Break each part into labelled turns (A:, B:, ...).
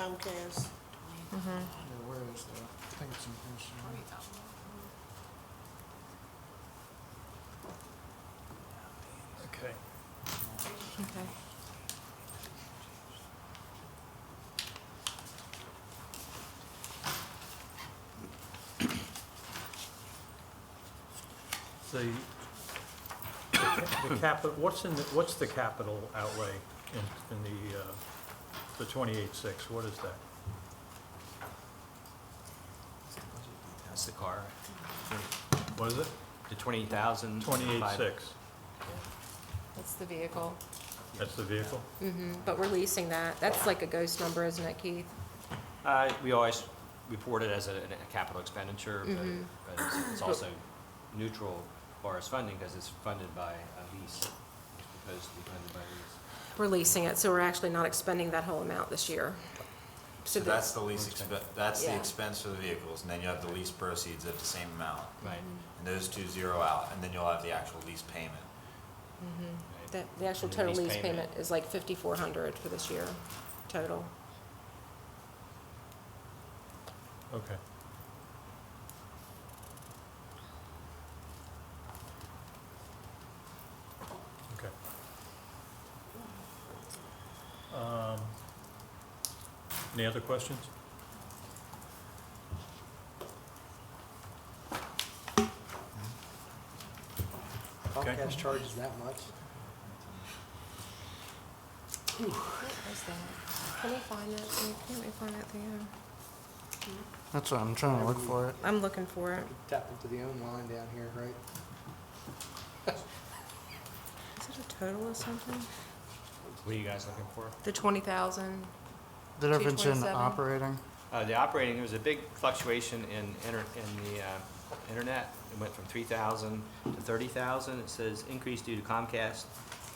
A: Comcast.
B: Yeah, where is that? I think it's in Houston.
C: Okay.
D: Okay.
C: The, the capital, what's in, the what's the capital outlay in, in the, uh, the twenty-eight six, what is that?
E: That's the car,
C: What is it?
E: the twenty thousand.
C: Twenty-eight six,
D: That's the vehicle.
C: that's the vehicle?
D: Mm-hmm. But we're leasing that. That's like a ghost number, isn't it, Keith?
E: Uh, we always report it as a, a capital expenditure,
D: Mhm.
E: but, but it's- it's also neutral as far as funding, because it's funded by a lease. It's proposed to be funded by a lease.
D: We're leasing it, so we're actually not expending that whole amount this year.
F: So
D: the-
F: that's the lease expense, that's the
D: Yeah.
F: expense for the vehicles, and then you have the lease proceeds of the same amount.
E: Right.
F: And those two zero out, and then you'll have the actual lease payment.
E: right.
D: The, Mm-hmm. the actual
E: And the
D: total
E: lease
D: lease
E: payment.
D: payment is like fifty-four hundred for this year, total.
C: Okay. Okay. Um, Any other questions? Okay.
B: Comcast charges that much?
D: Can we find that thing? Can we find that thing?
G: That's what I'm trying to look for it.
D: I'm looking for it.
B: Tap into the own line down here, right?
D: Is it a total or something?
E: What are you guys looking for?
D: The twenty thousand?
G: The difference in
D: 227?
G: operating,
E: Uh, the operating, there was a big fluctuation in inter, in the, uh, internet. It went from three thousand to thirty thousand. It says increase due to Comcast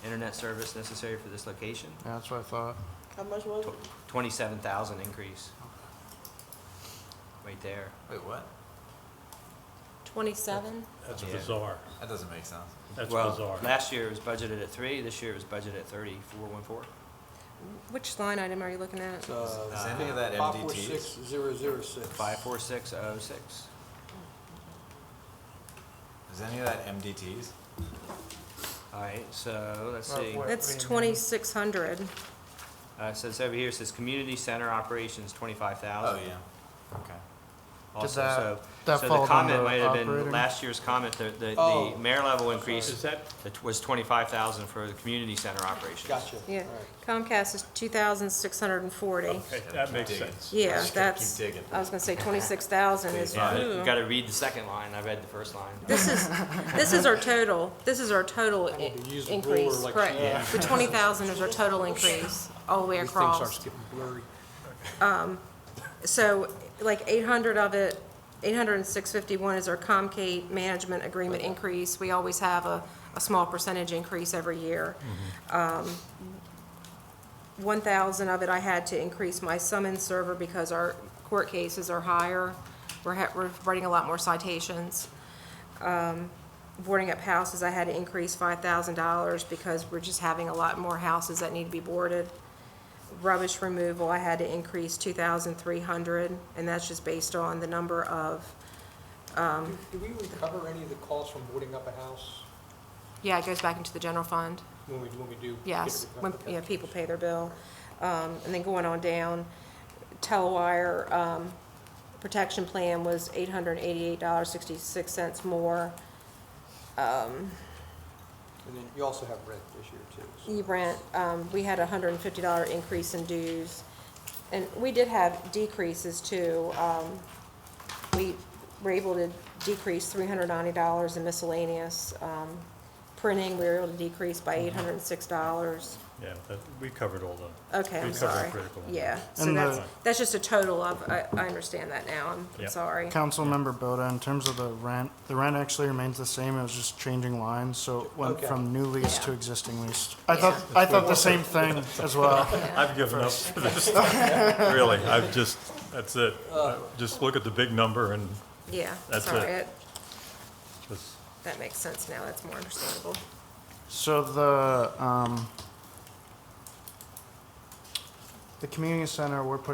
E: internet service necessary for this location.
G: yeah, that's what I thought.
A: How much was it?
E: Twenty-seven thousand increase. Right there.
F: Wait, what?
D: Twenty-seven?
C: That's
E: Yeah.
C: bizarre.
F: That doesn't make sense.
C: That's
E: Well,
C: bizarre.
E: Last year it was budgeted at three, this year it was budgeted at thirty-four, one four.
D: Which line item are you looking at?
F: Is any of that
B: Five four
F: MDTs?
B: six zero zero six.
E: Five, four, six, oh, six.
F: Is any of that MDTs?
E: All right, so let's see.
G: Well,
D: That's
G: Premium.
D: twenty-six hundred.
E: Uh, it says over here, it says community center operations, twenty-five
F: Oh,
E: thousand.
F: yeah, okay.
E: Also,
G: that-
E: so,
G: that
E: so the
G: fall
E: comment
G: under
E: might have been,
G: operating?
E: last year's comment, the, the,
B: Oh.
E: the mayor level
C: Is
E: increase
C: that,
E: that was twenty-five thousand for the community center operations.
B: Gotcha.
D: Yeah,
B: All right.
D: Comcast is two thousand six hundred and forty.
C: okay,
F: Gotta
C: that
F: keep
C: makes
F: digging.
C: sense.
D: Yeah,
F: Just gotta
D: that's,
F: Keep digging.
D: I was gonna say twenty-six thousand is,
E: Yeah,
D: ooh.
E: you gotta read the second line, I read the first line.
D: This is, this is our total, this is our total i-
B: need to use a ruler
D: increase,
B: like
D: correct.
E: Yeah.
D: The twenty thousand is our total increase, all the way
B: These things are
D: across. Um,
B: getting blurry.
D: So, like, eight hundred of it, eight hundred and six fifty-one is our Comcast management agreement increase. We always have a, a small percentage increase every year.
B: Mm-hmm.
D: Um, One thousand of it I had to increase my summons server because our court cases are higher. We're, ha- we're writing a lot more citations. Um, Boarding up houses, I had to increase five thousand dollars because we're just having a lot more houses that need to be boarded. Rubbish removal, I had to increase two thousand three hundred, and that's just based on the number of,
B: Do do we recover any of the costs from boarding up a house
D: yeah, it goes back into the general fund.
B: when we, when we do? get it
D: Yes, when,
B: recovered?
D: yeah, people pay their bill. Um, and then going on down, Telewire, um, protection plan was eight hundred and eighty-eight dollars, sixty-six cents more.
B: And then you also have rent this year too. so-
D: E-rent, um, we had a hundred and fifty dollar increase in dues. And we did have decreases too. Um, we were able to decrease three hundred ninety dollars in miscellaneous. Um, printing, we were able to decrease by eight hundred and six dollars.
C: Yeah, that, we covered all the,
D: Okay,
C: We
D: I'm
C: covered
D: sorry.
C: critical.
D: Yeah, so
G: And the-
D: that's, that's just a total of, I, I understand that now, I'm- I'm
C: Yep.
D: sorry.
G: Council member Boda, in terms of the rent, the rent actually remains the same, it was just changing lines, so it went
B: Okay.
G: from new lease
D: Yeah.
G: to existing lease. I
D: Yeah.
G: thought, I thought the same thing as well.
C: I've given up for this, really, I've just, that's it. Just look at the big number and
D: Yeah,
C: That's
D: sorry,
C: it.
D: it-
C: just,
D: that makes sense now, that's more understandable.
G: So the, um, the community center, we're putting